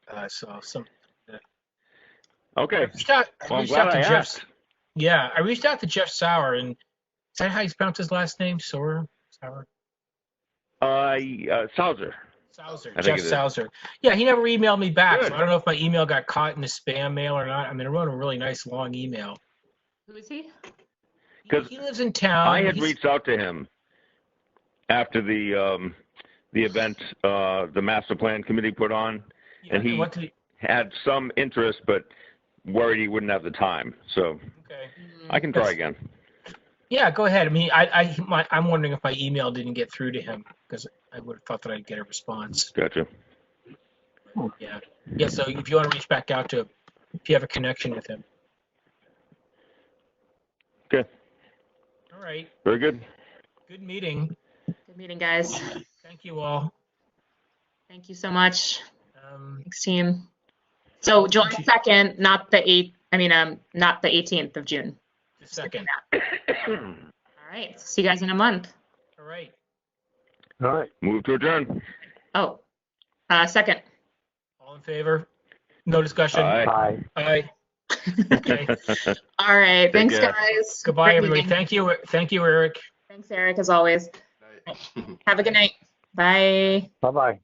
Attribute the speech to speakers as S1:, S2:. S1: Uh, so some I
S2: Okay.
S1: reached out, I
S2: Well, I'm
S1: reached
S2: glad
S1: out to
S2: I
S1: Jeff.
S2: asked.
S1: Yeah, I reached out to Jeff Sauer, and is that how you pronounce his last name? Sauer, Sauer,
S2: Uh, uh, Sauser.
S1: Sauser,
S2: I think
S1: Jeff
S2: it is.
S1: Sauser. Yeah, he never emailed me back,
S2: Good.
S1: so I don't know if my email got caught in the spam mail or not. I mean, I wrote a really nice long email.
S3: Who is he?
S2: 'Cause
S1: He lives in town.
S2: I had
S1: Um, He's-
S2: reached out to him after the um, the event uh, the master plan committee put on.
S1: yeah,
S2: and he-
S1: what did he-
S2: Had some interest, but worried he wouldn't have the time. So
S1: okay.
S2: I can try
S1: That's-
S2: again.
S1: Yeah, go ahead. I mean, I, I, my, I'm wondering if my email didn't get through to him because I would have thought that I'd get a response.
S2: Gotcha.
S1: Yeah. Yeah. So if you want to reach back out to, him, if you have a connection with him.
S2: Okay.
S1: All right.
S2: Very good.
S1: Good meeting.
S3: Good meeting, guys.
S1: Thank you all.
S3: Thank you so much.
S1: Um,
S3: Thanks, team. So July 2nd, not the 8th, I mean, um, not the 18th of June.
S1: the second.
S3: All right, see you guys in a month.
S1: All right.
S4: All right.
S2: Move to adjourn.
S3: Oh, uh, second.
S1: All in favor? No discussion.
S2: Aye.
S4: Bye.
S1: Aye. Okay.
S3: All right,
S2: Take
S3: thanks,
S2: care.
S3: guys.
S1: Goodbye,
S3: Great
S1: everybody.
S3: meeting.
S1: Thank you. Thank you, Eric.
S3: Thanks, Eric, as always. Have a good night. Bye.
S4: Bye-bye.